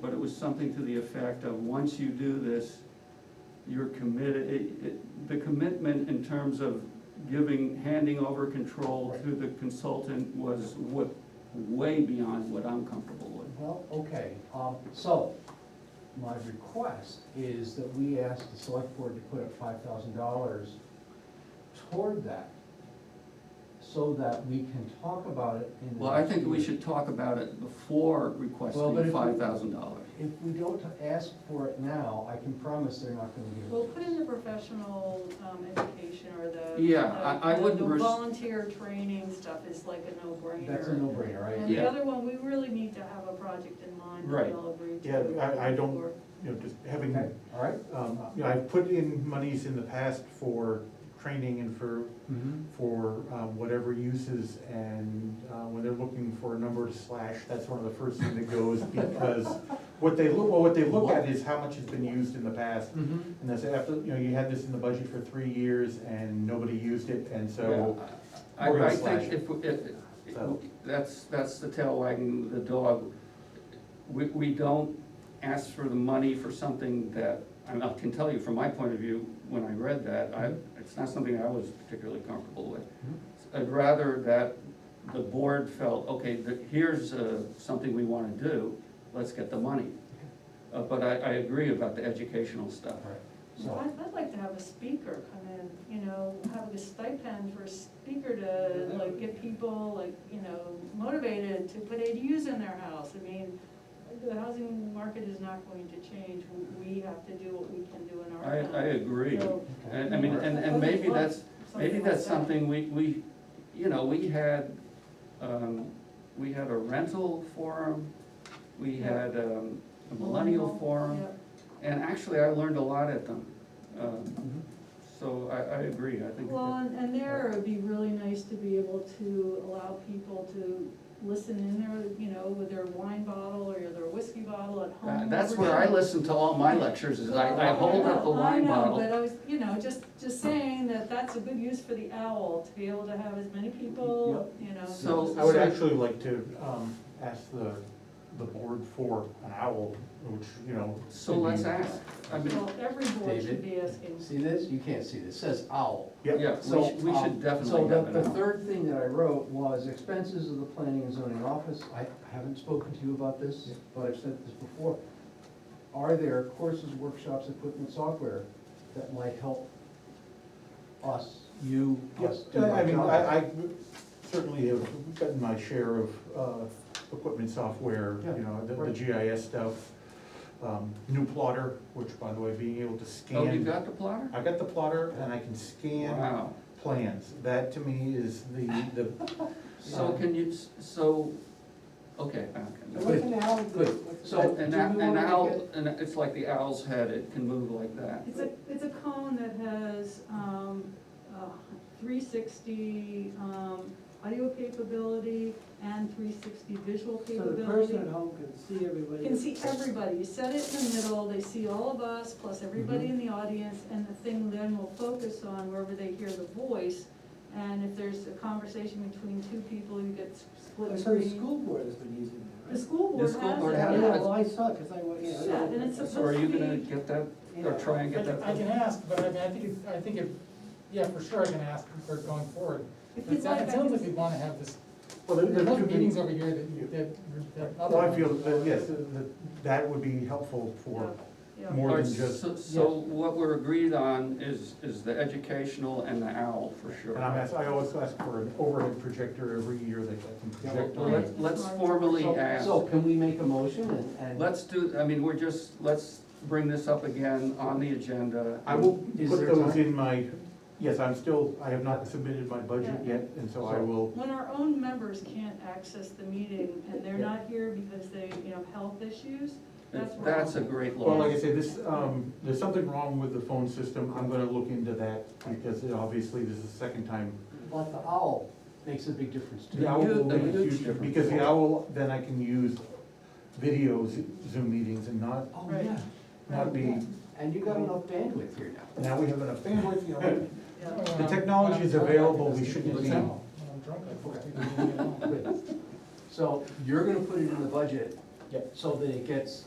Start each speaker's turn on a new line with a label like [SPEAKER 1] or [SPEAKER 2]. [SPEAKER 1] but it was something to the effect of, once you do this, you're committed, it, it, the commitment in terms of giving, handing over control to the consultant was wa- way beyond what I'm comfortable with.
[SPEAKER 2] Well, okay, um, so, my request is that we ask the select board to put up five thousand dollars toward that, so that we can talk about it in the.
[SPEAKER 1] Well, I
[SPEAKER 2] next
[SPEAKER 1] think we
[SPEAKER 2] meeting.
[SPEAKER 1] should talk about it before
[SPEAKER 2] Well, but if
[SPEAKER 1] requesting
[SPEAKER 2] we-
[SPEAKER 1] five thousand dollars.
[SPEAKER 2] If we don't ask for it now, I can promise they're not gonna give it.
[SPEAKER 3] Well,
[SPEAKER 2] to
[SPEAKER 3] put
[SPEAKER 2] us.
[SPEAKER 3] in the professional um, education or the.
[SPEAKER 1] Yeah, I- I
[SPEAKER 3] the-
[SPEAKER 1] wouldn't
[SPEAKER 3] The
[SPEAKER 1] res-
[SPEAKER 3] volunteer training stuff is like a no-brainer.
[SPEAKER 2] That's a no-brainer,
[SPEAKER 3] And
[SPEAKER 2] right?
[SPEAKER 3] the
[SPEAKER 1] Yeah.
[SPEAKER 3] other one, we really need to have a project in mind that
[SPEAKER 1] Right.
[SPEAKER 3] we all agree to.
[SPEAKER 4] Yeah, I, I don't,
[SPEAKER 3] Or-
[SPEAKER 4] you know, just having,
[SPEAKER 2] Okay, all right?
[SPEAKER 4] um, you know, I've put in monies in the past for training and for,
[SPEAKER 1] Mm-hmm.
[SPEAKER 4] for um, whatever uses, and uh, when they're looking for a number to slash, that's one of the first thing that goes, because what they look, well, what they look at is how much has been used in the past.
[SPEAKER 1] Mm-hmm.
[SPEAKER 4] And that's after, you know, you had this in the budget for three years and nobody used it, and so,
[SPEAKER 1] I,
[SPEAKER 4] We're gonna
[SPEAKER 1] I
[SPEAKER 4] slash
[SPEAKER 1] think
[SPEAKER 4] it.
[SPEAKER 1] if, we- if, if-
[SPEAKER 4] So-
[SPEAKER 1] that's, that's the tail wagging the dog. We, we don't ask for the money for something that, and I can tell you from my point of view, when I read that, I, it's not something I was particularly comfortable with.
[SPEAKER 4] Mm-hmm.
[SPEAKER 1] I'd rather that the board felt, okay, th here's, uh, something we wanna do, let's get the money. Uh, but I, I agree about the educational stuff.
[SPEAKER 2] All right,
[SPEAKER 3] Well,
[SPEAKER 2] so,
[SPEAKER 3] I'd, I'd like to have a speaker come in, you know, have a stipend for a speaker to like get people like, you know, motivated to put ADUs in their house. I mean, the housing market is not going to change. We- We have to do what we can do in our
[SPEAKER 1] I,
[SPEAKER 3] town.
[SPEAKER 1] I agree.
[SPEAKER 3] So,
[SPEAKER 2] okay.
[SPEAKER 1] And, I mean, and, and maybe that's, Maybe
[SPEAKER 3] like
[SPEAKER 1] that's
[SPEAKER 3] that.
[SPEAKER 1] something we, we, you know, we had, um, we had a rental forum, we
[SPEAKER 3] Yeah.
[SPEAKER 1] had, um, a millennial forum,
[SPEAKER 3] Yeah.
[SPEAKER 1] and actually, I learned a lot at them. Um,
[SPEAKER 2] Mhm.
[SPEAKER 1] so I, I agree, I think,
[SPEAKER 3] Well,
[SPEAKER 1] that-
[SPEAKER 3] and, and there, it'd be really nice to be able to allow people to listen in there, you know, with their wine bottle or their whiskey bottle at
[SPEAKER 1] Uh,
[SPEAKER 3] home.
[SPEAKER 1] that's where I listen to all my lectures, is I, I hold up the
[SPEAKER 3] Well,
[SPEAKER 1] wine
[SPEAKER 3] I know,
[SPEAKER 1] bottle.
[SPEAKER 3] but I was, you know, just, just saying that that's a good use for the owl, to be able to have as many people, you know.
[SPEAKER 1] So-
[SPEAKER 4] I would actually like to um, ask the, the board for an owl, which, you know.
[SPEAKER 1] So
[SPEAKER 4] could be-
[SPEAKER 1] let's ask, I mean,
[SPEAKER 3] Well, every board
[SPEAKER 2] David?
[SPEAKER 3] should be asking.
[SPEAKER 2] See this? You can't see this, It says owl.
[SPEAKER 4] Yep.
[SPEAKER 1] yeah, we
[SPEAKER 2] So,
[SPEAKER 1] should, we
[SPEAKER 2] um,
[SPEAKER 1] should definitely have
[SPEAKER 2] So
[SPEAKER 1] an
[SPEAKER 2] the, the
[SPEAKER 1] hour.
[SPEAKER 2] third thing that I wrote was expenses of the planning and zoning office. I haven't spoken to you about this, but I've said this before. Are there courses, workshops, equipment, software that might help us, you, us
[SPEAKER 4] Yes,
[SPEAKER 2] do our
[SPEAKER 4] Uh, I mean,
[SPEAKER 2] job?
[SPEAKER 4] I, I certainly have gotten my share of, uh, equipment software,
[SPEAKER 2] Yeah,
[SPEAKER 4] you know, the, the
[SPEAKER 2] right.
[SPEAKER 4] GIS stuff. Um, new plotter, which by the way, being able to
[SPEAKER 1] Oh, you
[SPEAKER 4] scan,
[SPEAKER 1] got the plotter?
[SPEAKER 4] I got the plotter and I can scan
[SPEAKER 1] Wow,
[SPEAKER 4] plans, that to me is the, the,
[SPEAKER 1] so can you, s- so, okay, okay.
[SPEAKER 2] What's an
[SPEAKER 5] owl?
[SPEAKER 2] Good.
[SPEAKER 1] So, and that,
[SPEAKER 2] Do we
[SPEAKER 1] an
[SPEAKER 2] wanna
[SPEAKER 1] owl, and it's like the owl's head, it can move like that.
[SPEAKER 3] It's a, it's a cone that has, um, uh, three sixty, um, audio capability and three sixty visual
[SPEAKER 5] So the person
[SPEAKER 3] capability.
[SPEAKER 5] at home can see everybody.
[SPEAKER 3] You Can see everybody, you set it in the middle, they see all of us, plus
[SPEAKER 5] Mm-hmm.
[SPEAKER 3] everybody in the audience, and the thing then will focus on wherever they hear the voice. And if there's a conversation between two people, you get s- split
[SPEAKER 5] Well, So the
[SPEAKER 3] screen.
[SPEAKER 5] school board has been using
[SPEAKER 3] The
[SPEAKER 5] that,
[SPEAKER 3] school board
[SPEAKER 1] school
[SPEAKER 3] has
[SPEAKER 1] board
[SPEAKER 3] it,
[SPEAKER 5] right?
[SPEAKER 1] has
[SPEAKER 5] Yeah,
[SPEAKER 3] yeah.
[SPEAKER 1] it.
[SPEAKER 5] well, I saw it, cause I, wa- yeah.
[SPEAKER 3] Yeah, and it's
[SPEAKER 1] So are you gonna
[SPEAKER 3] supposed to be,
[SPEAKER 1] get that,
[SPEAKER 5] yeah.
[SPEAKER 1] or try and
[SPEAKER 6] I
[SPEAKER 1] get that?
[SPEAKER 6] I can ask, but I mean, I think, it- I think if, yeah, for sure I can ask for it going forward.
[SPEAKER 3] if
[SPEAKER 6] It
[SPEAKER 3] you'd like, I
[SPEAKER 6] sounds it sounds like we
[SPEAKER 3] can,
[SPEAKER 6] wanna have this,
[SPEAKER 4] well, there-
[SPEAKER 6] there's
[SPEAKER 4] there
[SPEAKER 6] enough
[SPEAKER 4] could be-
[SPEAKER 6] meetings over here that, that, that other.
[SPEAKER 4] Well, I feel
[SPEAKER 6] ones-
[SPEAKER 4] that, yes, that, that would be helpful for
[SPEAKER 3] yeah.
[SPEAKER 4] more
[SPEAKER 1] Or
[SPEAKER 4] than just,
[SPEAKER 1] so- So what we're agreed on is, is the educational and the owl, for sure.
[SPEAKER 4] and I'm asked, I always ask for an overhead projector every year that I can project
[SPEAKER 1] Well,
[SPEAKER 4] on.
[SPEAKER 1] let's, let's formally
[SPEAKER 2] So-
[SPEAKER 1] ask,
[SPEAKER 2] So can we make a motion and, and?
[SPEAKER 1] let's do, I mean, we're just, let's bring this up again on the agenda.
[SPEAKER 4] I will
[SPEAKER 2] Is
[SPEAKER 4] put
[SPEAKER 2] there
[SPEAKER 4] those
[SPEAKER 2] time?
[SPEAKER 4] in my, yes, I'm still, I have not submitted my budget yet, and so I will,
[SPEAKER 3] When our own members can't access the meeting and they're not here because they, you know, have health issues, that's where.
[SPEAKER 1] That's a great
[SPEAKER 4] well,
[SPEAKER 1] law.
[SPEAKER 4] like I say, this, um, there's something wrong with the phone system, I'm gonna look into that, because it- obviously this is the second time.
[SPEAKER 2] But the owl makes a big difference too.
[SPEAKER 4] The owl will
[SPEAKER 1] huge- a
[SPEAKER 4] make
[SPEAKER 1] huge
[SPEAKER 4] huge-
[SPEAKER 1] difference.
[SPEAKER 4] Because the owl, then I can use video Zo- Zoom meetings and not,
[SPEAKER 2] Oh,
[SPEAKER 3] Right.
[SPEAKER 2] yeah.
[SPEAKER 4] not be,
[SPEAKER 2] And you got enough bandwidth here now.
[SPEAKER 4] now we have enough bandwidth, you know,
[SPEAKER 3] Yeah.
[SPEAKER 6] When
[SPEAKER 4] The
[SPEAKER 6] I'm-
[SPEAKER 4] technology
[SPEAKER 6] when
[SPEAKER 4] is
[SPEAKER 6] I'm drunk, I
[SPEAKER 4] available,
[SPEAKER 6] can
[SPEAKER 4] we
[SPEAKER 6] just
[SPEAKER 4] shouldn't
[SPEAKER 6] do
[SPEAKER 4] be-
[SPEAKER 6] it now. When I'm drunk, I can just do it now.
[SPEAKER 2] So you're gonna put it in the budget.
[SPEAKER 4] Yep.
[SPEAKER 2] So that it gets